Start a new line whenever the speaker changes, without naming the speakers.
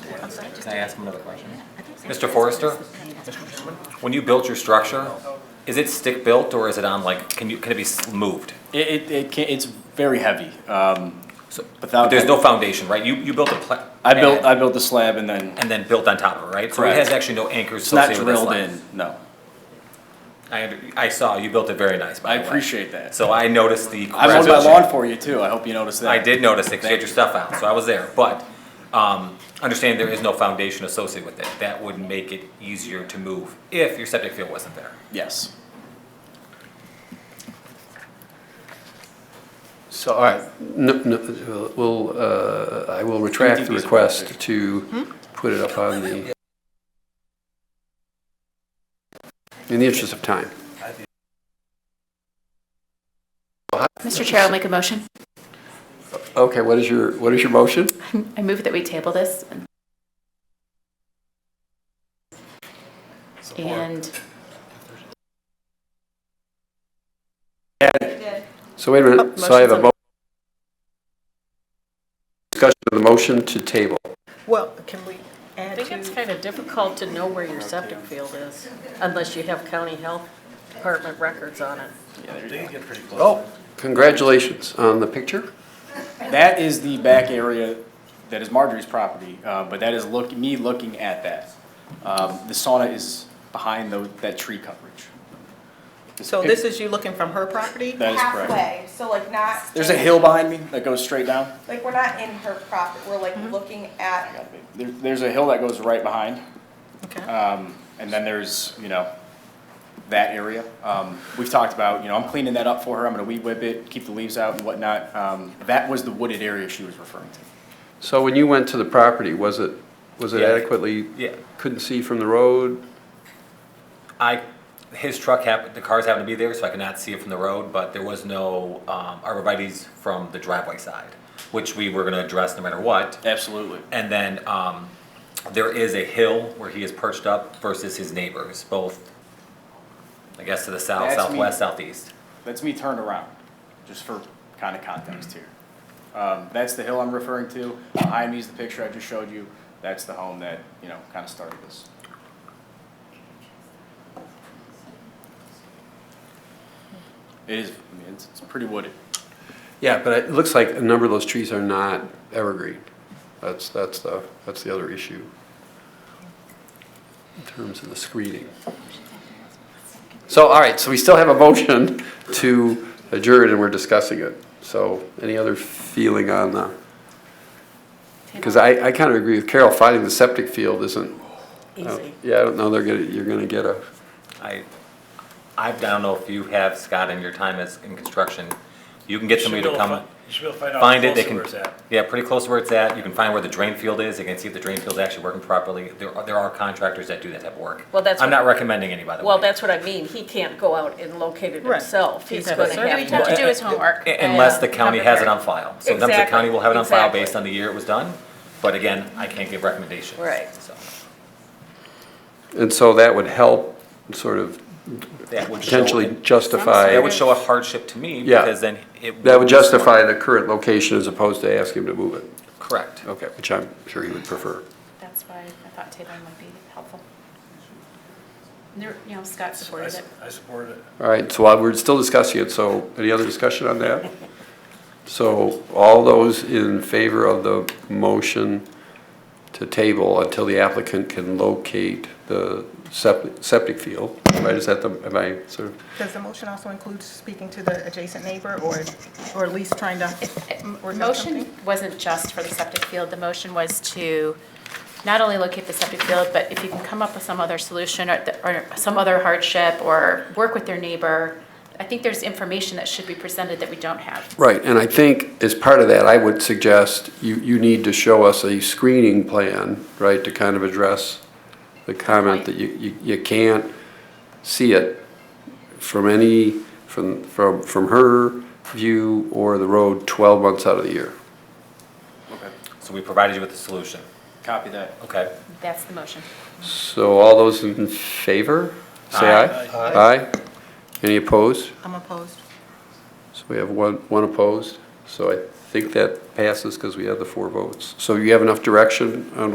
Can I ask him another question?
Mr. Forrester, when you built your structure, is it stick-built or is it on like, can you, can it be s- moved?
It, it, it can, it's very heavy. Um,
So- But
without,
there's no foundation, right? You, you built a pla-
I built, I
pad
built the slab and then
And then built on top of it, right? So it
Correct.
has actually no anchors
it's not
associated with that slab.
drilled in. No,
I, under- I saw, you built it very nice, by
I
the way.
appreciate that.
So I noticed the.
I mowed my lawn for you too. I hope you noticed that.
I did notice it, 'cause you had
Thank
your
you.
stuff out, so I was there, but, um, understand there is no foundation associated with it. That would make it easier to move if your septic field wasn't there.
Yes.
So, all right, no, no, we'll, uh, I will retract the
TDPs are
request to put it up on the, in the interest of time.
Mr. Chair, I'll make a motion.
Okay, what is your, what is your motion?
I move that we table this. and- And
So wait a minute,
Oh,
so I have a
motion's
mo- discussion of the motion to table.
Well, can we add
I think it's
to,
kind of difficult to know where your septic field is unless you have county health department records on it.
Oh, congratulations on the picture.
That is the back area that is Marjorie's property, uh, but that is look, me looking at that. Um, the sauna is behind tho- that tree coverage.
so this is you looking from her property?
That is correct.
halfway, so like not.
There's a hill behind me that goes straight down.
Like, we're not in her property, we're
Mm-hmm.
like looking at,
There, there's a hill that goes right behind.
Okay.
Um, and then there's, you know, that area. Um, we've talked about, you know, I'm cleaning that up for her, I'm gonna weed whip it, keep the leaves out and whatnot. Um, that was the wooded area she was referring to.
So when you went to the property, was it, was it
Yeah.
adequately?
Yeah.
Couldn't see from the road?
I, his truck happened, the cars happened to be there, so I could not see it from the road, but there was no, um, arborvitae's from the driveway side, which we were gonna address no matter what.
Absolutely.
And then, um, there is a hill where he is perched up versus his neighbors, both, I guess to the south,
That's me.
southwest, southeast.
That's me turned around, just for kind of context here. Um, that's the hill I'm referring to. Behind me is the picture I just showed you. That's the home that, you know, kind of started this. It is, I mean, it's, it's pretty wooded.
Yeah, but it looks like a number of those trees are not evergreen. That's, that's the, that's the other issue in terms of the screening. So, all right, so we still have a motion to adjourn and we're discussing it. So any other feeling on the, because I, I kind of agree with Carol, finding the septic field isn't, uh,
Easy.
yeah, I don't know, they're gonna, you're gonna get a,
I, I don't know if you have, Scott, in your time as, in construction, you can get somebody to come.
You should be able to find out
find it, they
closer
can.
where it's at.
Yeah, pretty close to where it's at, you can find where the drain field is, you can see if the drain field's actually working properly, there, are- there are contractors that do that type of work.
Well, that's
I'm
what-
not recommending any, by the way.
Well, that's what I mean. He can't go out and locate it
Right.
himself.
He'd
He's
have a
going to
survey
he'd have
have.
to do his homework.
A- Unless the
and
county
come
has it
prepared.
on file, sometimes the county will have it on file
uh, Exactly,
based on the year it was done, but again, I can't give recommendations.
Right.
So,
and so that would help sort of
that would show,
potentially
that
justify.
would show a hardship to me,
Yeah.
because then it.
That would justify the current location as opposed to ask him to move it.
Correct.
Okay, which I'm sure he would prefer.
That's why I thought tabling would be helpful. There- You know, Scott
I
supported
su-
it.
I support it.
All right, so while we're still discussing it, so any other discussion on that? So all those in favor of the motion to table until the applicant can locate the septic, septic field, right, is that the, am I sort of,
Does the motion also include speaking to the adjacent neighbor or, or at least trying to
The
work out
motion
something?
wasn't just for the septic field, the motion was to not only locate the septic field, but if you can come up with some other solution or, the- or some other hardship or work with their neighbor, I think there's information that should be presented that we don't have.
Right, and I think as part of that, I would suggest you, you need to show us a screening plan, right, to kind of address the comment that you, you, you can't see it from any, from, from, from her view or the road twelve months out of the year.
Okay.
So we provided you with the solution,
Copy that.
okay?
That's the motion.
So all those in favor, say aye. Aye. Any opposed?
I'm opposed.
So we have one, one opposed, so I think that passes because we have the four votes. So you have enough direction on